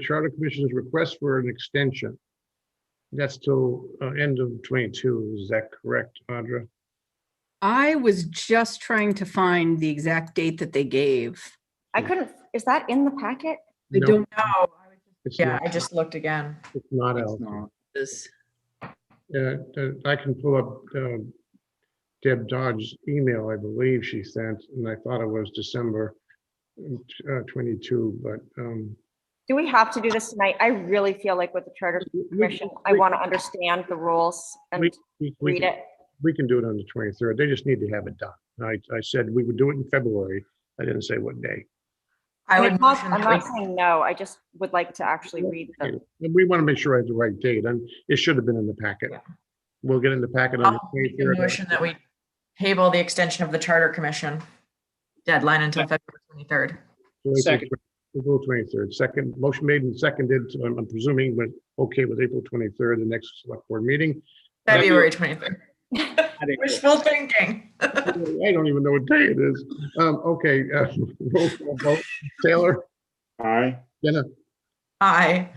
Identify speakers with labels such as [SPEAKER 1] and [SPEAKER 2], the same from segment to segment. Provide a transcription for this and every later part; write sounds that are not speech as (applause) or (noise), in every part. [SPEAKER 1] Charter Commission's request for an extension. That's till uh, end of twenty-two, is that correct, Audra?
[SPEAKER 2] I was just trying to find the exact date that they gave.
[SPEAKER 3] I couldn't, is that in the packet?
[SPEAKER 2] I
[SPEAKER 1] No,
[SPEAKER 2] don't know.
[SPEAKER 1] it's
[SPEAKER 4] Yeah,
[SPEAKER 1] not-
[SPEAKER 4] I just looked again.
[SPEAKER 1] It's not
[SPEAKER 2] It's
[SPEAKER 1] out.
[SPEAKER 2] not this.
[SPEAKER 1] Yeah, uh, I can pull up um, Deb Dodge's email, I believe she sent, and I thought it was December uh, twenty-two, but um,
[SPEAKER 3] Do we have to do this tonight? I really feel like with the Charter Commission, I want to understand the rules and
[SPEAKER 1] we- we
[SPEAKER 3] read
[SPEAKER 1] can-
[SPEAKER 3] it.
[SPEAKER 1] we can do it on the twenty-third. They just need to have it done. And I, I said we would do it in February. I didn't say what day.
[SPEAKER 4] I
[SPEAKER 3] And
[SPEAKER 4] would
[SPEAKER 3] I'm not-
[SPEAKER 4] motion
[SPEAKER 3] I'm
[SPEAKER 4] that
[SPEAKER 3] not
[SPEAKER 4] we-
[SPEAKER 3] saying no, I just would like to actually read them.
[SPEAKER 1] And we want to make sure I have the right date, and it should have been in the packet.
[SPEAKER 4] Yeah.
[SPEAKER 1] We'll get in the packet on the
[SPEAKER 4] I'll make a
[SPEAKER 1] twenty-third.
[SPEAKER 4] motion that we table the extension of the Charter Commission deadline until February twenty-third.
[SPEAKER 5] Second.
[SPEAKER 1] April twenty-third, second, motion made and seconded, so I'm I'm presuming we're okay with April twenty-third, the next select board
[SPEAKER 4] (laughs)
[SPEAKER 1] meeting.
[SPEAKER 4] February twenty-third.
[SPEAKER 5] I think-
[SPEAKER 4] Wishful thinking.
[SPEAKER 1] I don't even know what day it is. Um, okay, uh, (laughs) roll call vote. Taylor,
[SPEAKER 5] Aye.
[SPEAKER 1] Jenna,
[SPEAKER 4] Aye.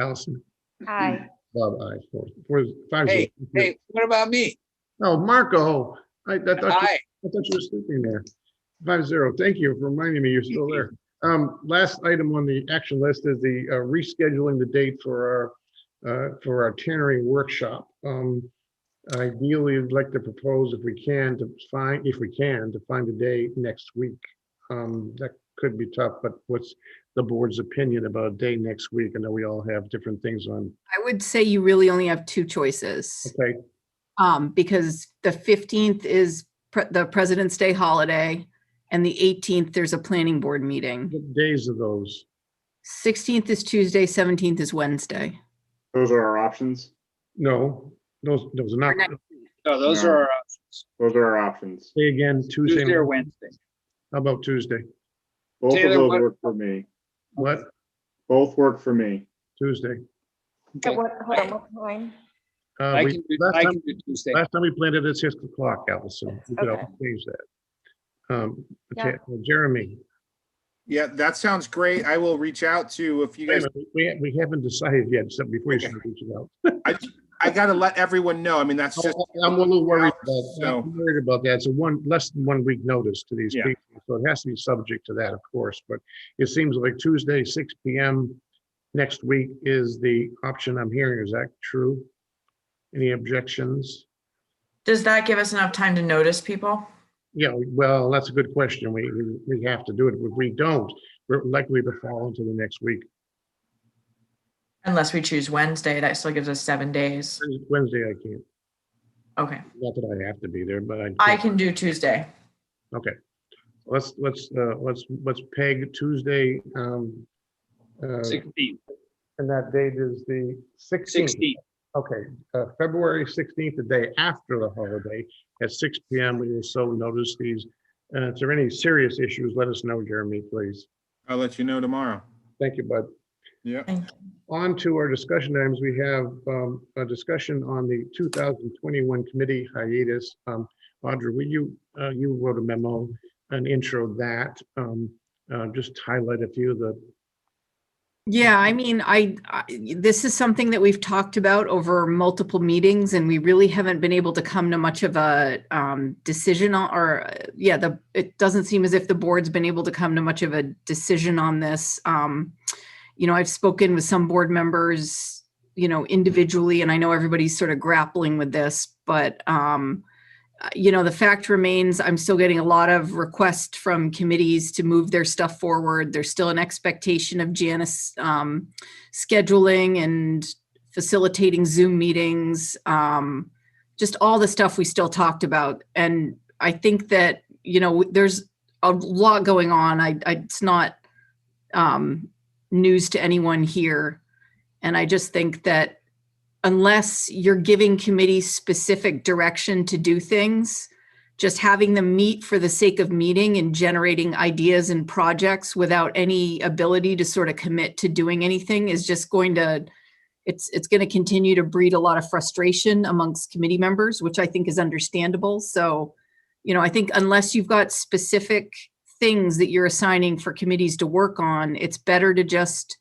[SPEAKER 1] Allison,
[SPEAKER 3] Hi,
[SPEAKER 1] Bob, I, four, four, five. zero.
[SPEAKER 6] Hey, Hey, what about me?
[SPEAKER 1] Oh, Marco, I, I thought. you-
[SPEAKER 6] Hi,
[SPEAKER 1] I thought you were sleeping there. Five zero. Thank you for reminding me you're still there. Um, last item on the action list is the uh, rescheduling the date for our, uh, for our tannery workshop. Um, ideally, I'd like to propose if we can to find, if we can, to find a day next week. Um, that could be tough, but what's the board's opinion about a day next week? I know we all have different things on,
[SPEAKER 2] I would say you really only have two choices,
[SPEAKER 1] okay,
[SPEAKER 2] um, because the 15th is pre- the President's Day holiday, and the 18th, there's a planning board meeting.
[SPEAKER 1] what days of those?
[SPEAKER 2] 16th is Tuesday, 17th is Wednesday.
[SPEAKER 7] Those are our options.
[SPEAKER 1] No, those, those are not,
[SPEAKER 2] Or next-
[SPEAKER 5] No, those are our options.
[SPEAKER 7] Those are our options.
[SPEAKER 1] say again, Tuesday,
[SPEAKER 5] Tuesday or
[SPEAKER 1] how
[SPEAKER 5] Wednesday.
[SPEAKER 1] about Tuesday?
[SPEAKER 7] Both of
[SPEAKER 5] Taylor,
[SPEAKER 7] those
[SPEAKER 5] what-
[SPEAKER 7] work for me.
[SPEAKER 1] What?
[SPEAKER 7] Both work for me.
[SPEAKER 1] Tuesday.
[SPEAKER 3] At
[SPEAKER 5] Okay.
[SPEAKER 3] what, hold on, what time?
[SPEAKER 1] Uh,
[SPEAKER 5] I
[SPEAKER 1] we-
[SPEAKER 5] can do,
[SPEAKER 1] Last
[SPEAKER 5] I
[SPEAKER 1] time,
[SPEAKER 5] can do Tuesday.
[SPEAKER 1] last time we planned it at six o'clock, Allison. We could
[SPEAKER 3] Okay.
[SPEAKER 1] always change that. Um,
[SPEAKER 3] Yeah.
[SPEAKER 1] okay, well, Jeremy,
[SPEAKER 8] Yeah, that sounds great. I will reach out to if you
[SPEAKER 1] wait a
[SPEAKER 8] guys,
[SPEAKER 1] minute, we, we haven't decided yet, so before you
[SPEAKER 8] Okay.
[SPEAKER 1] start reaching out.
[SPEAKER 8] I gotta let everyone know. I mean,
[SPEAKER 1] Oh.
[SPEAKER 8] that's just,
[SPEAKER 1] I'm a little worried about,
[SPEAKER 8] So-
[SPEAKER 1] I'm worried about that. It's a one, less than one week notice to these
[SPEAKER 8] Yeah.
[SPEAKER 1] people. So it has to be subject to that, of course, but it seems like Tuesday, six P M next week is the option I'm hearing. Is that true? Any objections?
[SPEAKER 4] Does that give us enough time to notice people?
[SPEAKER 1] Yeah, well, that's a good question. We, we- we have to do it. If we don't, we're likely to fall into the next week.
[SPEAKER 4] Unless we choose Wednesday, that still gives us seven days.
[SPEAKER 1] Wednesday, I can't,
[SPEAKER 4] Okay,
[SPEAKER 1] not that I have to be there, but I.
[SPEAKER 4] I can do Tuesday.
[SPEAKER 1] Okay. Let's, let's, uh, let's, let's peg Tuesday, um, uh,
[SPEAKER 5] Sixteen.
[SPEAKER 1] and that date is the sixteenth.
[SPEAKER 5] Sixteen.
[SPEAKER 1] Okay, uh, February sixteenth, the day after the holiday, at six P M. We will so notice these. Uh, if there are any serious issues, let us know, Jeremy, please.
[SPEAKER 8] I'll let you know tomorrow.
[SPEAKER 1] Thank you, bud.
[SPEAKER 8] Yeah.
[SPEAKER 4] Thank you.
[SPEAKER 1] On to our discussion items, we have um, a discussion on the 2021 committee hiatus. Um, Audra, will you, uh, you wrote a memo, an intro that, um, uh, just highlight a few of the,
[SPEAKER 2] Yeah, I mean, I, I, this is something that we've talked about over multiple meetings and we really haven't been able to come to much of a um, decision on- or, uh, yeah, the, it doesn't seem as if the board's been able to come to much of a decision on this. Um, You know, I've spoken with some board members, you know, individually, and I know everybody's sort of grappling with this, but, um, uh, you know, the fact remains, I'm still getting a lot of requests from committees to move their stuff forward. There's still an expectation of Janice um, scheduling and facilitating Zoom meetings, um, just all the stuff we still talked about. And I think that, you know, there's a lot going on. I, I it's not um, news to anyone here. And I just think that unless you're giving committees specific direction to do things, just having them meet for the sake of meeting and generating ideas and projects without any ability to sort of commit to doing anything is just going to, it's, it's going to continue to breed a lot of frustration amongst committee members, which I think is understandable. So, you know, I think unless you've got specific things that you're assigning for committees to work on, it's better to just